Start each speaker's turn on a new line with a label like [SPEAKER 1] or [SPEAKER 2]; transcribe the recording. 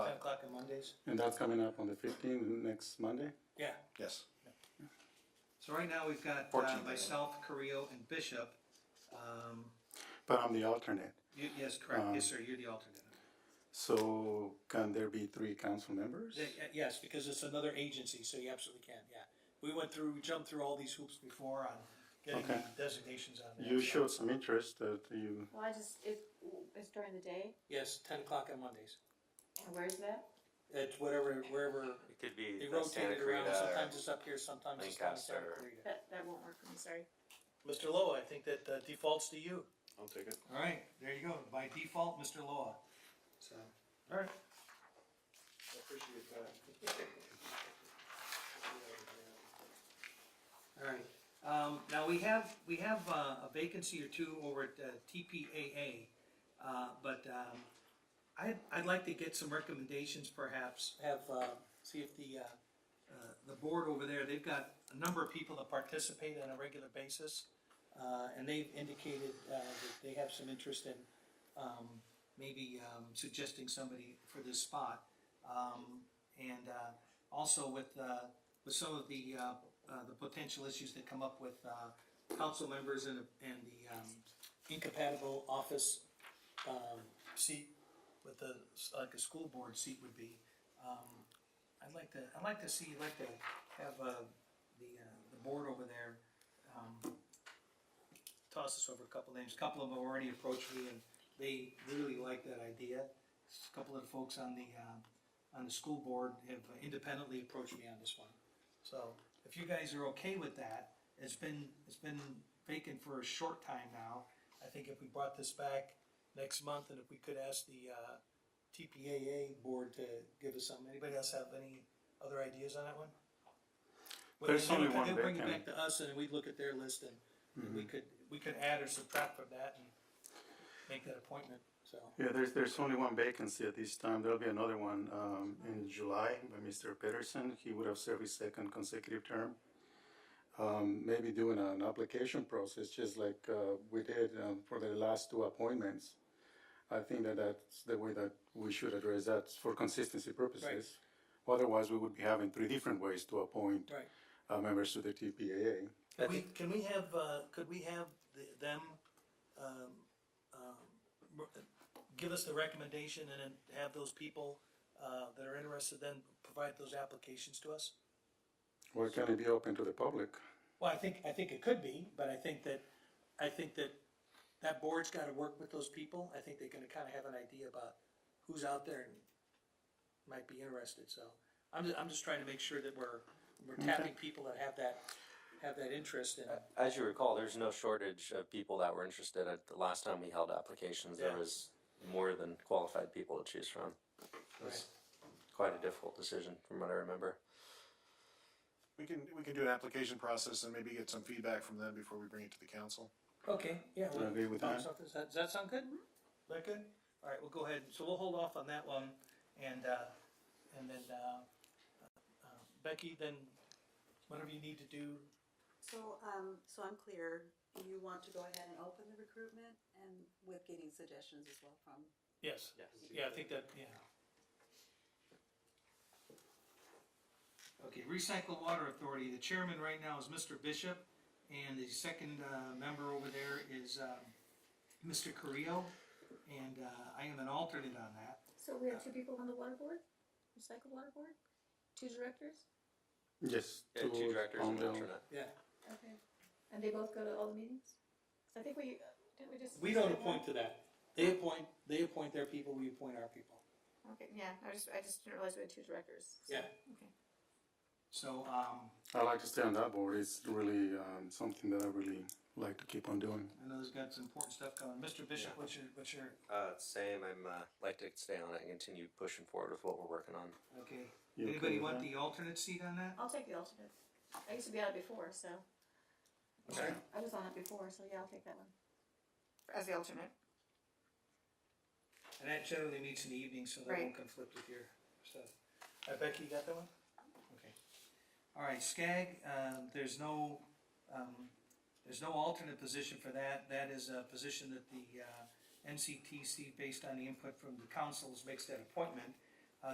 [SPEAKER 1] days?
[SPEAKER 2] And that's coming up on the fifteenth, next Monday?
[SPEAKER 1] Yeah.
[SPEAKER 3] Yes.
[SPEAKER 1] So right now, we've got uh,
[SPEAKER 3] 14 days.
[SPEAKER 1] myself, Carrillo, and Bishop. Um,
[SPEAKER 2] But I'm the alternate.
[SPEAKER 1] you, yes, correct, yes, sir, you're the alternate.
[SPEAKER 2] So can there be three council members?
[SPEAKER 1] Yeah, yeah, uh, Yes, because it's another agency, so you absolutely can, yeah. We went through, we jumped through all these hoops before on getting the
[SPEAKER 2] Okay.
[SPEAKER 1] designations on there.
[SPEAKER 2] You
[SPEAKER 1] so-
[SPEAKER 2] showed some interest that you,
[SPEAKER 4] Well, I just, it, it's during the day,
[SPEAKER 1] Yes, ten o'clock on Mondays.
[SPEAKER 4] and where's that?
[SPEAKER 1] It's whatever, wherever,
[SPEAKER 5] It could be
[SPEAKER 1] they
[SPEAKER 5] the uh,
[SPEAKER 1] rotate
[SPEAKER 5] Santa
[SPEAKER 1] it around,
[SPEAKER 5] Clarita or-
[SPEAKER 1] sometimes it's up here, sometimes it's down in Santa
[SPEAKER 5] Lancaster.
[SPEAKER 1] Clarita.
[SPEAKER 4] That, that won't work for me, sorry.
[SPEAKER 6] Mr. Loa, I think that uh, defaults to you.
[SPEAKER 3] I'll take it.
[SPEAKER 1] All right, there you go, by default, Mr. Loa. So, all right.
[SPEAKER 6] I appreciate that.
[SPEAKER 1] All right, um, now we have, we have uh, a vacancy or two over at uh, TPAA, uh, but, um, I, I'd like to get some recommendations perhaps, have, uh, see if the, uh, uh, the board over there, they've got a number of people that participate on a regular basis, uh, and they've indicated, uh, that they have some interest in, um, maybe, um, suggesting somebody for this spot. Um, and, uh, also with, uh, with some of the, uh, uh, the potential issues that come up with, uh, council members and, and the, um, incompatible office, um, seat with the, like a school board seat would be. Um, I'd like to, I'd like to see, I'd like to have, uh, the, uh, the board over there, um, toss us over a couple names. A couple of them already approached me and they really like that idea. A couple of the folks on the, uh, on the school board have independently approached me on this one. So if you guys are okay with that, it's been, it's been vacant for a short time now. I think if we brought this back next month and if we could ask the, uh, TPAA board to give us something. Anybody else have any other ideas on that one?
[SPEAKER 2] There's
[SPEAKER 1] Well,
[SPEAKER 2] only
[SPEAKER 1] they'll-
[SPEAKER 2] one
[SPEAKER 1] They'll bring it
[SPEAKER 2] vacant. Mm-hmm.
[SPEAKER 1] back to us and then we'd look at their list and and we could, we could add or subtract from that and make that appointment, so.
[SPEAKER 2] yeah, there's, there's only one vacancy at this time. There'll be another one, um, in July by Mr. Peterson. He would have served his second consecutive term. Um, maybe doing an application process, just like, uh, we did, um, for the last two appointments. I think that that's the way that we should address that for consistency purposes. Otherwise, we would be having three different ways to appoint
[SPEAKER 1] Right.
[SPEAKER 2] uh, members to the TPAA.
[SPEAKER 6] Can we, can we have, uh, could we have the- them, um, um, r- give us the recommendation and then have those people, uh, that are interested then provide those applications to us?
[SPEAKER 2] Or can it be open to the public?
[SPEAKER 1] Well, I think, I think it could be, but I think that, I think that that board's gotta work with those people. I think they're gonna kinda have an idea about who's out there and might be interested, so. I'm, ju- I'm just trying to make sure that we're, we're tapping people that have that, have that interest in.
[SPEAKER 5] As you recall, there's no shortage of people that were interested. At the last time we held applications, there
[SPEAKER 6] Yeah.
[SPEAKER 5] was more than qualified people to choose from. It was quite a difficult decision, from what I remember.
[SPEAKER 3] We can, we can do an application process and maybe get some feedback from them before we bring it to the council.
[SPEAKER 1] Okay, yeah.
[SPEAKER 2] I agree with that.
[SPEAKER 1] Does that, does that sound good? Is Mm-hmm. that good? All right, we'll go ahead, so we'll hold off on that one, and, uh, and then, uh, uh, Becky, then, whatever you need to do,
[SPEAKER 7] So, um, so I'm clear, you want to go ahead and open the recruitment and with getting suggestions as well from
[SPEAKER 1] yes. Yeah, I think that, yeah. Okay, Recycle Water Authority, the chairman right now is Mr. Bishop, and the second, uh, member over there is, um, Mr. Carrillo, and, uh, I am an alternate on that.
[SPEAKER 4] So we have two people on the water board, recycle water board, two directors,
[SPEAKER 2] Yes.
[SPEAKER 5] Yeah, two directors
[SPEAKER 2] on
[SPEAKER 5] and
[SPEAKER 2] the-
[SPEAKER 5] an alternate.
[SPEAKER 1] Yeah.
[SPEAKER 4] okay, and they both go to all the meetings? I think we, didn't we just?
[SPEAKER 1] We don't appoint to that. They appoint, they appoint their people, we appoint our people.
[SPEAKER 4] Okay, yeah, I just, I just didn't realize we had two directors. so-
[SPEAKER 1] Yeah.
[SPEAKER 4] Okay.
[SPEAKER 1] So, um,
[SPEAKER 2] I like to stay on that board. It's really um, something that I really like to keep on doing.
[SPEAKER 1] I know there's got some important stuff going. Mr. Bishop, what's your, what's your,
[SPEAKER 5] Uh, same, I'm, uh, like to stay on it and continue pushing forward with what we're working on.
[SPEAKER 1] okay.
[SPEAKER 2] You okay
[SPEAKER 1] Anybody
[SPEAKER 2] with
[SPEAKER 1] want
[SPEAKER 2] that?
[SPEAKER 1] the alternate seat on that?
[SPEAKER 4] I'll take the alternate. I used to be on it before, so.
[SPEAKER 5] Okay.
[SPEAKER 4] I was on it before, so yeah, I'll take that one. As the alternate.
[SPEAKER 1] And that generally meets in the evening, so that won't
[SPEAKER 4] Right.
[SPEAKER 1] conflict with your stuff. Uh, Becky, you got that one? Okay. All right, SCAG, um, there's no, um, there's no alternate position for that. That is a position that the, uh, NCTC, based on the input from the councils, makes that appointment.